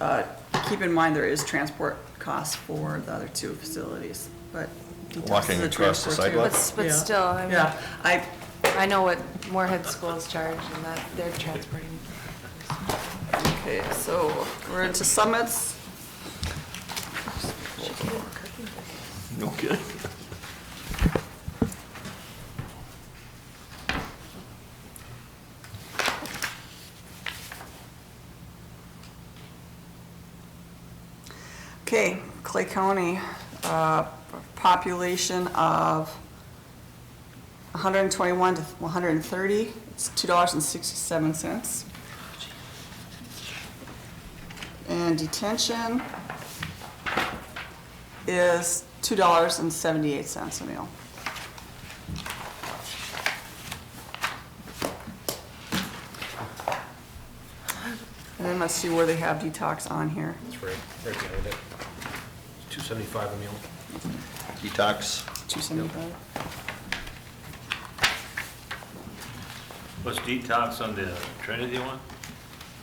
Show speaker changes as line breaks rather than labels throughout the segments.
uh, keep in mind, there is transport costs for the other two facilities, but. detox is
Walking
a
across the
transport too.
sidewalk?
But s- but
Yeah.
still, I mean-
Yeah, I,
I know what Moorhead schools charge and that they're transporting.
okay, so we're into summits.
No kidding.
Okay, Clay County, uh, population of 121 to 130, it's $2.67. And detention is $2.78 a meal. And then let's see where they have detox on here.
It's right, right behind it. Two seventy-five a meal.
Detox.
275.
Was detox on the Trinity one?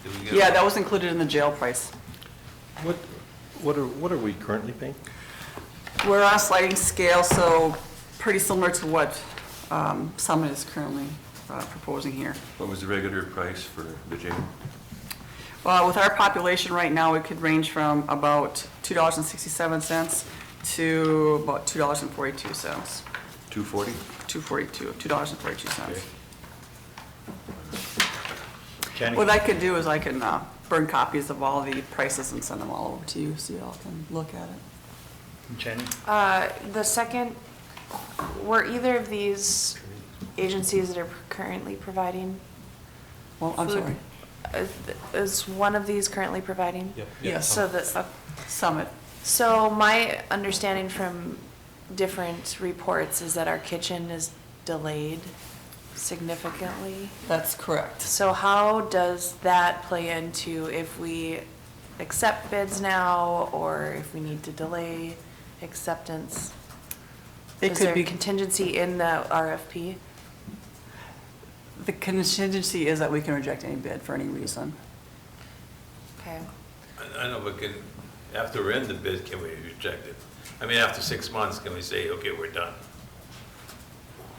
Did we get
Yeah,
a-
that was included in the jail price.
What, what are, what are we currently paying?
We're on a sliding scale, so pretty similar to what um, Summit is currently uh, proposing here.
What was the regular price for the jail?
Well, Uh, with our population right now, it could range from about $2.67 to about $2.42.
Two forty?
$2.42, $2.42.
Okay.
Kenny?
What I could do is I can uh, burn copies of all the prices and send them all over to you, so y'all can look at it.
Jenny?
Uh, The second, were either of these agencies that are currently providing
Well, I'm
food?
sorry,
uh, th- Is one of these currently providing?
Yep.
Yes.
So the, uh,
Summit.
so my understanding from different reports is that our kitchen is delayed significantly.
That's correct.
So how does that play into if we accept bids now, or if we need to delay acceptance?
It
Is
could
there
be-
contingency in the RFP?
The contingency is that we can reject any bid for any reason.
Okay.
I- I know, but can, after we're in the bid, can we reject it? I mean, after six months, can we say, okay, we're done?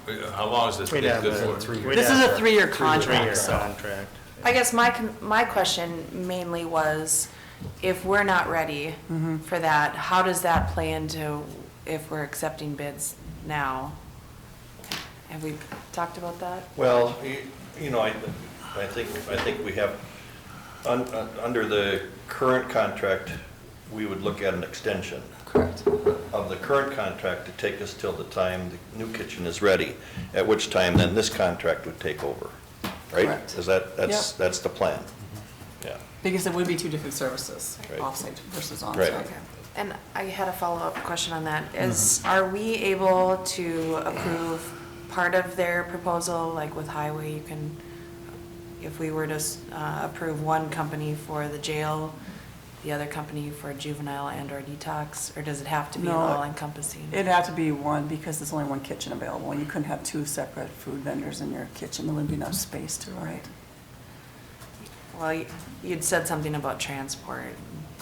We- How long is this
We'd
bid
have
good
a-
for?
we'd
This is
have
a three-year
Three-year
contract, so-
contract.
I guess my, con- my question mainly was, if we're not ready
Mm-hmm.
for that, how does that play into if we're accepting bids now? Have we talked about that?
Well, y- you know, I, I think, I think we have, un- un- under the current contract, we would look at an extension
Correct.
of the current contract to take us till the time the new kitchen is ready, at which time then this contract would take over, right?
Correct.
Is that, that's,
Yep.
that's the plan? Yeah.
Because it would be two different services,
Right.
offsite versus
Right.
onsite.
Okay, and I had a follow-up question on that, is, are we able to approve part of their proposal, like with highway, you can, if we were to uh, approve one company for the jail, the other company for juvenile and or detox, or does it have to be
No.
all encompassing?
It'd have to be one, because there's only one kitchen available, and you couldn't have two separate food vendors in your kitchen, there wouldn't be enough space to, right?
Well, you- you'd said something about transport,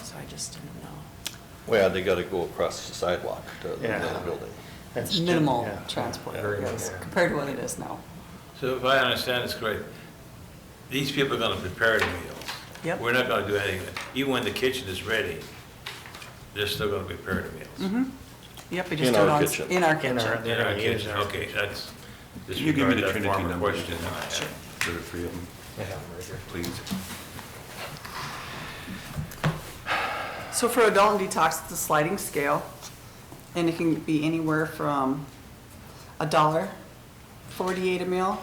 so I just didn't know.
Well, they gotta go across the sidewalk to the
Yeah.
building.
That's ju-
Minimal
yeah.
transport,
Very
yes,
minimal.
compared to what it is now.
So if I understand this correct, these people are gonna prepare the meals.
Yep.
We're not gonna do anything, even when the kitchen is ready, they're still gonna prepare the meals.
Mm-hmm. Yep, we
In
just do it
our
on,
kitchen.
in our
In our-
kitchen.
They're gonna
Yeah, okay,
use our-
Okay, that's,
Can you give me
disregard
the
that
Trinity
former
number?
question. I had.
For the three of them,
I have them right here.
please.
So for adult and detox, it's a sliding scale, and it can be anywhere from a dollar forty-eight a meal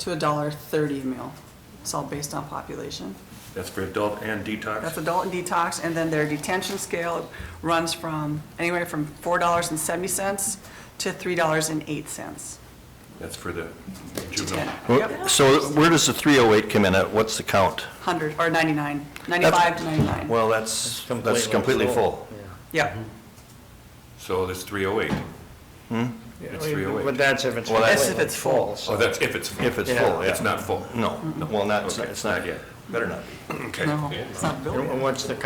to a dollar thirty a meal. It's all based on population.
That's for adult and
That's
detox?
adult and detox, and then their detention scale runs from, anywhere from $4.70 to $3.08.
That's for the
Ten.
juvenile.
Yep,
So where does the 308 come in at? What's the count?
100, or 99, 95 to 99.
Well,
It's
that's, that's completely full.
Yeah.
Yep,
So that's three oh eight. It's 308.
But that's if it's.
oh Well, that's-
That's if it's full.
so-
Oh, that's if it's full.
If it's
Yeah.
full, yeah.
It's not full.
No, well, not, it's not- it's not yet. Better not be.
Okay.
no, it's not built.
And What's the